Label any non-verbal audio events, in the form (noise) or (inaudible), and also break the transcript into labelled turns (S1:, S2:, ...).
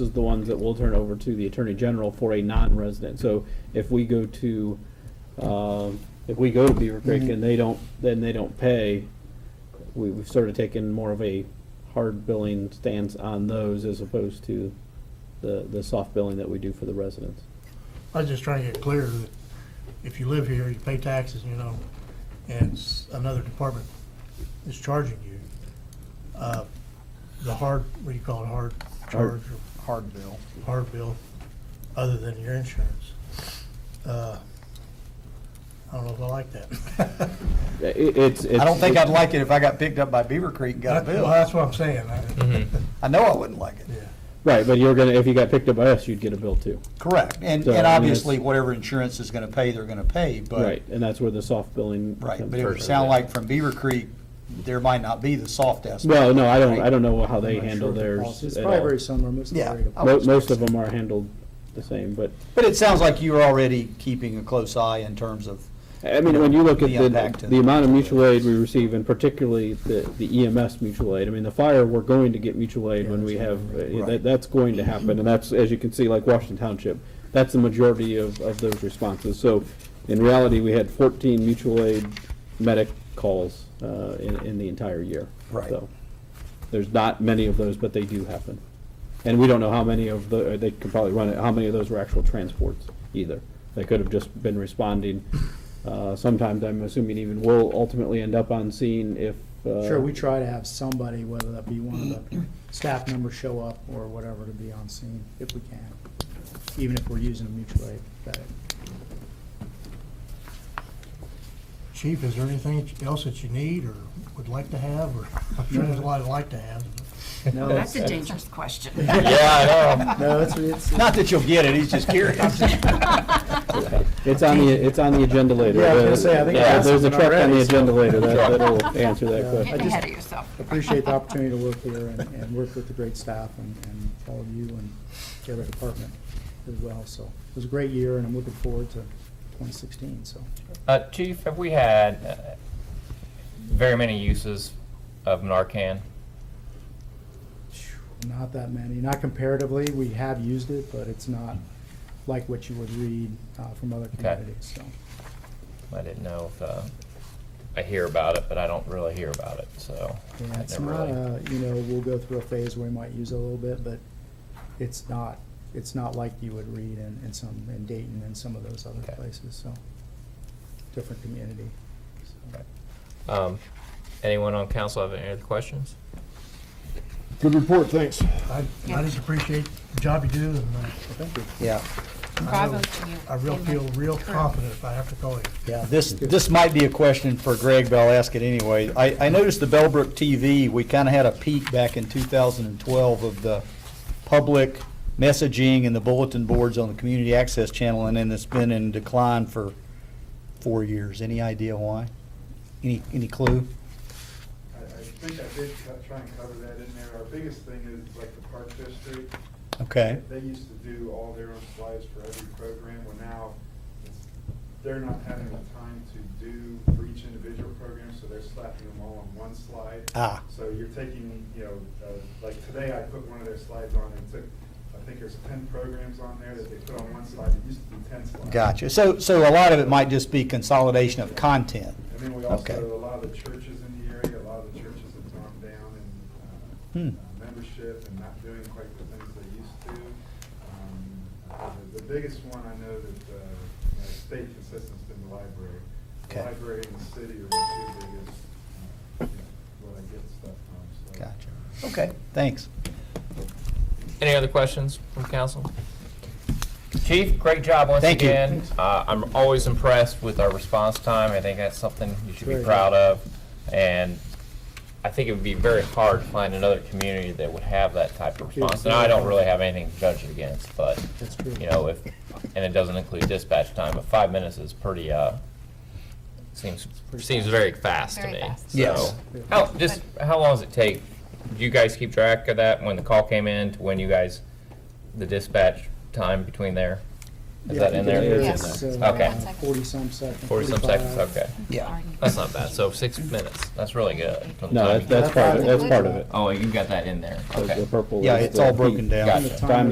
S1: is the ones that we'll turn over to the Attorney General for a non-resident. So if we go to, um, if we go to Beaver Creek
S2: Mm-hmm.
S1: and they don't, then they don't pay, we- we've sort of taken more of a hard billing stance on those as opposed to the, the soft billing that we do for the residents.
S3: I was just trying to get clear that if you live here, you pay taxes, you know, and s- another department is charging you, uh, the hard, what do you call it, hard charge or
S2: hard bill.
S3: hard bill, other than your insurance. Uh, I don't know if I like that.
S1: Yeah, it- it's, it's.
S2: I don't think I'd like it if I got picked up by Beaver Creek
S3: (laughs)
S2: and got a
S3: Well,
S2: bill.
S3: that's what I'm saying. I-
S2: I know I wouldn't like it.
S3: Yeah,
S1: Right, but you're gonna, if you got picked up by us, you'd get a bill too.
S2: Correct. And,
S1: So, I mean,
S2: and
S1: it's-
S2: obviously, whatever insurance is gonna pay, they're gonna pay, but,
S1: Right, and that's where the soft billing.
S2: right.
S1: comes
S2: But it would
S1: from.
S2: sound like from Beaver Creek, there might not be the soft aspect.
S1: Well, no, I don't,
S2: Right.
S1: I don't know how they
S4: I'm not
S1: handle
S4: sure the
S1: theirs.
S4: policy- It's
S1: at
S4: probably
S1: all. Uh,
S4: very similar, most of them
S2: Yeah.
S4: are very
S2: I
S1: Mo-
S2: would-
S1: Most of them are handled the same, but,
S2: But it sounds like you're already keeping a close eye in terms of,
S1: I mean, when you look at
S2: The
S1: the,
S2: impact
S1: the amount of
S2: of-
S1: mutual aid we receive, and particularly the the EMS mutual aid, I mean, the fire, we're going to get mutual aid when we have, uh, that,
S2: Right.
S1: that's going to happen, and that's, as you can see, like Washington Township, that's the majority of, of those responses. So, in reality, we had fourteen mutual aid medic calls, uh, in, in the entire year.
S2: Right.
S1: So, There's not many of those, but they do happen. And we don't know how many of the, uh, they could probably run it, how many of those were actual transports either. They could have just been responding. Uh, Sometimes, I'm assuming even will ultimately end up on scene if. uh,
S4: Sure, we try to have somebody, whether that be one of
S5: (clears throat)
S4: the staff members show up or whatever, to be on scene if we can, even if we're using a mutual aid. But
S3: Chief, is there anything else that you need or would like to have, or (laughs) I'm sure there's a lot I'd like to have.
S4: No,
S5: That's
S4: it's-
S5: a dangerous question.
S3: (laughs)
S2: yeah, I know.
S4: no, it's, it's,
S2: (laughs) Not that you'll get it, he's just curious. (laughs)
S1: It's on the, it's on the agenda later.
S4: Yeah, I was gonna say, I think I
S1: Yeah,
S4: asked
S1: There's a
S4: him
S1: track on the
S4: already, so-
S1: agenda later that-
S2: (laughs)
S1: that'll answer that
S4: Yeah.
S1: question.
S5: Getting
S4: I just-
S5: ahead of yourself.
S4: appreciate the opportunity to work here and, and work with the great staff and, and all of you and every department as well. So it was a great year and I'm looking forward to twenty sixteen, so.
S6: Uh, Chief, have we had uh, very many uses of Narcan?
S4: Not that many, not comparatively. We have used it, but it's not like what you would read uh, from other communities, so.
S6: I didn't know if, uh, I hear about it, but I don't really hear about it, so.
S4: Yeah,
S6: I
S4: it's
S6: never
S4: not,
S6: really-
S4: a- you know, we'll go through a phase where we might use it a little bit, but it's not, it's not like you would read in, in some, in Dayton and some of those other
S6: Okay.
S4: places, so. Different community. so.
S6: Okay. Um, Anyone on council have any other questions?
S7: Good report, thanks.
S3: I, I just appreciate the job you do and uh,
S2: Yeah,
S5: Bravo to you.
S3: I real
S5: Amen.
S3: feel real confident if I have to call you.
S2: yeah, this, this might be a question for Greg, but I'll ask it anyway. I, I noticed the Bellbrook TV, we kind of had a peak back in 2012 of the public messaging and the bulletin boards on the community access channel, and then it's been in decline for four years. Any idea why? Any, any clue?
S8: I, I think I did co- try and cover that in there. Our biggest thing is like the Park District.
S2: Okay.
S8: They used to do all their own slides for every program, well now, it's, they're not having the time to do for each individual program, so they're slapping them all on one slide.
S2: Ah.
S8: So you're taking, you know, uh, like today I put one of their slides on and took, I think there's ten programs on there that they put on one slide. It used to be ten slides.
S2: Gotcha. So, so a lot of it might just be consolidation of content.
S8: And then we
S2: Okay.
S8: also, a lot of the churches in the area, a lot of the churches have gone down in
S2: Hmm.
S8: uh, uh, membership and not doing quite the things they used to. Um, uh, The the biggest one I know that uh, uh, stayed consistent has been the library. The
S2: Okay.
S8: library and the city are the two biggest, uh, you know, where I get stuff from, so.
S2: Gotcha. Okay, thanks.
S6: Any other questions from council? Chief, great job once
S2: Thank you.
S6: again. Uh, I'm always impressed with our response time. I think that's something you should be
S4: Very
S6: proud of. And I think it would be very hard to find another community that would have that type of response. And I don't really have anything to judge it against, but,
S4: That's true.
S6: you know, if, and it doesn't include dispatch time, but five minutes is pretty, uh, seems, seems very fast to
S5: Very
S6: me.
S5: fast.
S2: Yes.
S6: So, How, just, how long does it take? Do you guys keep track of that, when the call came in, to when you guys, the dispatch time between there? Is
S4: Yeah,
S6: that
S4: I
S6: in
S4: think
S6: there?
S4: it
S5: Yes.
S4: is,
S6: It's in
S4: uh,
S6: there. Okay.
S4: Forty-some seconds.
S6: Forty-some seconds,
S4: 45.
S6: okay.
S2: Yeah.
S6: That's not bad, so six minutes, that's really good. from the
S1: No,
S6: time
S1: that's,
S6: you-
S1: that's part of, it. that's part of it.
S6: Oh, you got that in there, okay.
S1: The purple
S2: Yeah,
S1: is
S2: it's
S1: the
S2: all
S1: heat.
S2: broken down.
S6: Gotcha.
S4: The
S1: Time